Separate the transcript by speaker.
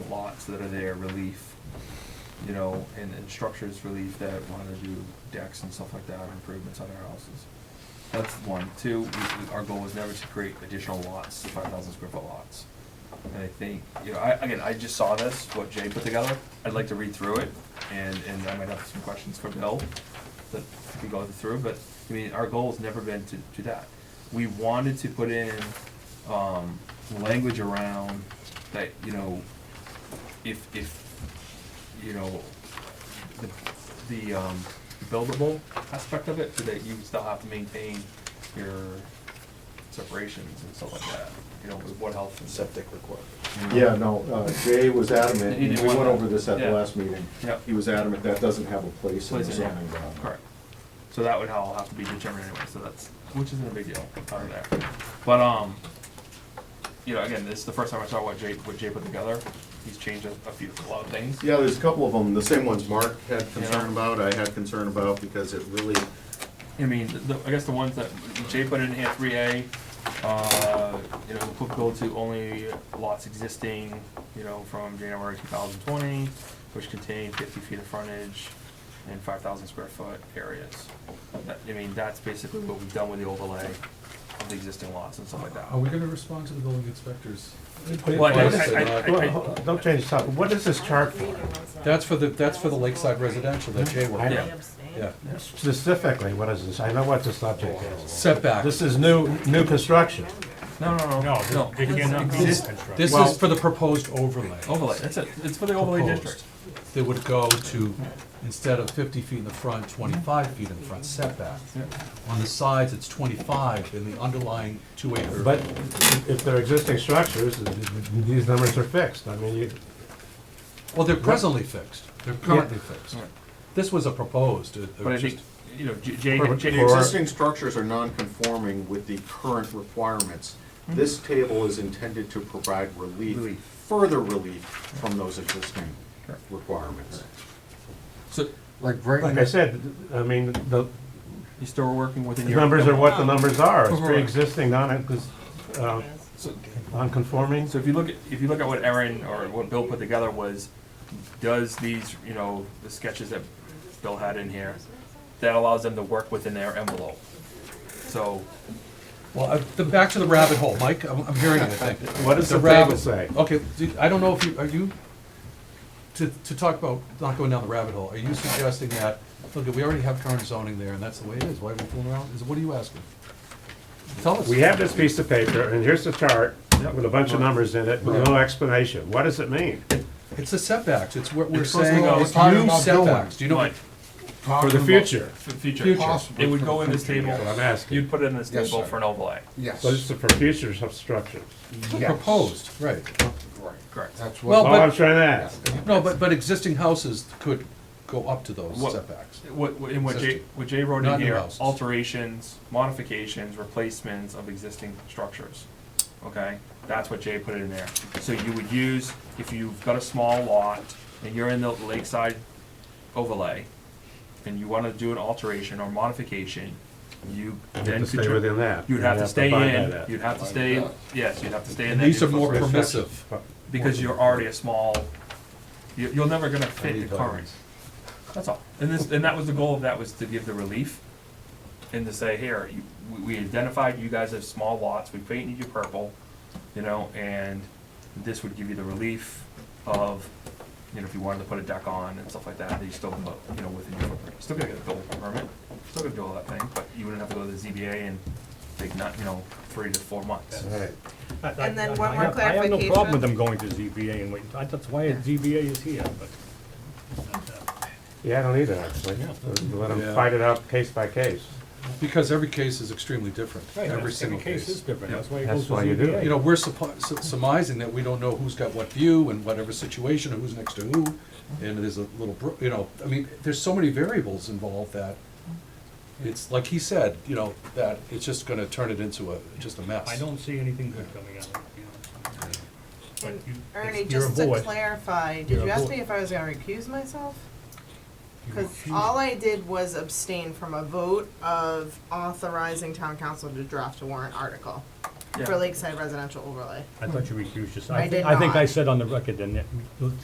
Speaker 1: roofs that are there, relief, you know, and, and structures relief that wanna do decks and stuff like that, improvements on their houses. That's one. Two, we, we- our goal was never to create additional lots, five thousand square foot lots. And I think, you know, I, again, I just saw this, what Jay put together, I'd like to read through it, and, and I might have some questions for Bill that we could go through, but, I mean, our goal's never been to do that. We wanted to put in, um, language around that, you know, if, if, you know, the, the, um, buildable aspect of it, so that you still have to maintain your separations and stuff like that, you know, with what health and stuff.
Speaker 2: septic requirement.
Speaker 3: Yeah, no, uh, Jay was adamant,
Speaker 1: He
Speaker 3: and
Speaker 1: didn't
Speaker 3: we
Speaker 1: want
Speaker 3: went
Speaker 1: that.
Speaker 3: over this at the
Speaker 1: Yeah.
Speaker 3: last meeting.
Speaker 1: Yep.
Speaker 3: He was adamant that doesn't have a place in the
Speaker 1: Place in, yeah.
Speaker 3: zoning bylaw.
Speaker 1: Correct. So that would all have to be determined anyway, so that's, which isn't a big deal out of there. But, um, you know, again, this is the first time I saw what Jay, what Jay put together. He's changed a, a few, a lot of things.
Speaker 2: Yeah, there's a couple of them, the same ones Mark had
Speaker 1: Yeah.
Speaker 2: concern about, I had concern about, because it really,
Speaker 1: I mean, the- the, I guess the ones that Jay put in here, three A, uh, you know, applicable to only lots existing, you know, from January two thousand twenty, which contain fifty feet of frontage and five thousand square foot areas. That- I mean, that's basically what we've done with the overlay of the existing lots and stuff like that.
Speaker 4: Are we gonna respond to the building inspectors?
Speaker 1: Well, I-
Speaker 4: Yes,
Speaker 1: I- I-
Speaker 4: uh,
Speaker 1: I-
Speaker 5: Well, hold on, Don't change the topic. What is this chart for?
Speaker 4: That's for the, that's for the lakeside residential that Jay worked
Speaker 5: I
Speaker 4: on,
Speaker 5: know.
Speaker 4: yeah.
Speaker 5: Specifically, what is this? I know what the subject is.
Speaker 1: Uh,
Speaker 4: Setback,
Speaker 5: This is new, new construction.
Speaker 1: No, no, no. No,
Speaker 6: It cannot be
Speaker 4: Exist-
Speaker 6: constructed.
Speaker 4: this is for the proposed overlay.
Speaker 1: Overlay, that's it. It's for Oh, the overlay
Speaker 4: Proposed.
Speaker 1: district.
Speaker 4: That would go to, instead of fifty feet in the front, twenty-five feet in the front setback.
Speaker 1: Yeah.
Speaker 4: On the sides, it's twenty-five in the underlying two acre.
Speaker 5: But if they're existing structures, these numbers are fixed. I mean, you,
Speaker 4: Well, they're presently fixed, they're currently fixed. This was a proposed, uh, uh,
Speaker 1: But I
Speaker 4: just-
Speaker 1: think, you know, J- Jay,
Speaker 5: For-
Speaker 1: Jay,
Speaker 2: the
Speaker 5: for-
Speaker 2: existing structures are non-conforming with the current requirements. This table is intended to provide relief,
Speaker 1: Hmm. Relief.
Speaker 2: further relief from those existing
Speaker 1: Correct.
Speaker 2: requirements.
Speaker 1: so
Speaker 7: Like right
Speaker 5: like I said, I mean, the
Speaker 1: you still working within
Speaker 5: the
Speaker 1: your.
Speaker 5: numbers are what the numbers are. It's
Speaker 1: Right.
Speaker 5: pre-existing, non, uh,
Speaker 1: So-
Speaker 5: non-conforming.
Speaker 1: So if you look at, if you look at what Aaron or what Bill put together was, does these, you know, the sketches that Bill had in here, that allows them to work within their envelope. So,
Speaker 4: Well, I- the, back to the rabbit hole, Mike, I'm, I'm hearing it, I think.
Speaker 5: What does the
Speaker 4: rabbit-
Speaker 5: table say?
Speaker 1: Oh.
Speaker 4: Okay, do- I don't know if you, are you, to, to talk about not going down the rabbit hole, are you suggesting that, look, we already have current zoning there, and that's the way it is, why are we fooling around? Is, what are you asking? Tell us.
Speaker 5: We have this piece of paper, and here's the chart with a bunch of numbers in it, with no explanation. What does it mean?
Speaker 4: It's the setbacks, it's what we're
Speaker 1: It's supposed to
Speaker 4: saying,
Speaker 1: go-
Speaker 4: it's
Speaker 1: it's
Speaker 7: talking
Speaker 4: new
Speaker 7: about building.
Speaker 4: setbacks, do you know?
Speaker 1: Mike,
Speaker 5: For the future.
Speaker 1: for future,
Speaker 4: Future.
Speaker 1: it would go in this table,
Speaker 5: That's what I'm asking.
Speaker 1: you'd put it in this
Speaker 7: Yes,
Speaker 1: table
Speaker 7: sir.
Speaker 1: for an overlay.
Speaker 7: Yes.
Speaker 5: So this is for future sub- structures.
Speaker 7: yes.
Speaker 4: Proposed, right.
Speaker 7: Right.
Speaker 1: Correct.
Speaker 7: That's
Speaker 4: Well,
Speaker 2: Oh,
Speaker 7: what.
Speaker 5: All
Speaker 4: but-
Speaker 5: I'm trying to ask.
Speaker 4: No, but, but existing houses could go up to those
Speaker 1: What-
Speaker 4: setbacks.
Speaker 1: What, what- and what Jay,
Speaker 4: Existing.
Speaker 1: what Jay wrote
Speaker 4: Not
Speaker 1: in
Speaker 4: new
Speaker 1: here,
Speaker 4: houses.
Speaker 1: alterations, modifications, replacements of existing structures, okay? That's what Jay put in there. So you would use, if you've got a small lot and you're in the lakeside overlay, and you wanna do an alteration or modification, you
Speaker 5: You
Speaker 1: then
Speaker 5: have to
Speaker 1: could.
Speaker 5: stay
Speaker 1: tr-
Speaker 5: within that.
Speaker 1: You'd have to stay
Speaker 5: abide by
Speaker 1: in,
Speaker 5: that.
Speaker 1: you'd have to stay, yes, you'd have to stay in
Speaker 4: And
Speaker 1: that.
Speaker 4: these
Speaker 1: new
Speaker 4: are more
Speaker 1: footprint,
Speaker 4: permissive.
Speaker 1: Because you're already a small, you, you're never gonna fit
Speaker 4: need
Speaker 1: the current.
Speaker 4: those.
Speaker 1: That's all. And this, and that was the goal of that, was to give the relief and to say, here, you, we, we identified you guys as small lots, we painted you purple, you know, and this would give you the relief of, you know, if you wanted to put a deck on and stuff like that, that you still, you know, within your footprint. You're Still gonna get a building permit, still gonna do all that thing, but you wouldn't have to go to the ZBA and take not, you know, three to four months.
Speaker 7: Right.
Speaker 6: And then one more
Speaker 8: I have no problem
Speaker 6: clarification.
Speaker 8: with them going to ZBA and waiting, I- that's why ZBA is here, but.
Speaker 5: Yeah, I don't either, actually. Let them fight it out case by case.
Speaker 4: Because every case is extremely different, every single
Speaker 8: case is different, that's why it
Speaker 5: That's
Speaker 8: goes to
Speaker 5: why you do it.
Speaker 8: ZBA.
Speaker 4: You know, we're suppo- su- surmising that we don't know who's got what view and whatever situation, and who's next to who, and there's a little, bro- you know, I mean, there's so many variables involved that it's, like he said, you know, that it's just gonna turn it into a, just a mess.
Speaker 8: I don't see anything good coming out of it, you know. But you-
Speaker 6: Ernie,
Speaker 8: you're a
Speaker 6: just to
Speaker 8: board.
Speaker 6: clarify, did
Speaker 8: You're a
Speaker 6: you ask
Speaker 8: void.
Speaker 6: me if I was gonna recuse myself?
Speaker 8: You
Speaker 6: Cause
Speaker 8: refuse.
Speaker 6: all I did was abstain from a vote of authorizing town council to draft a warrant article
Speaker 1: Yeah.
Speaker 6: for Lakeside Residential Overlay.
Speaker 8: I thought you recused yourself.
Speaker 6: I
Speaker 8: thi-
Speaker 6: did
Speaker 8: I think I
Speaker 6: not.
Speaker 8: said on the record, and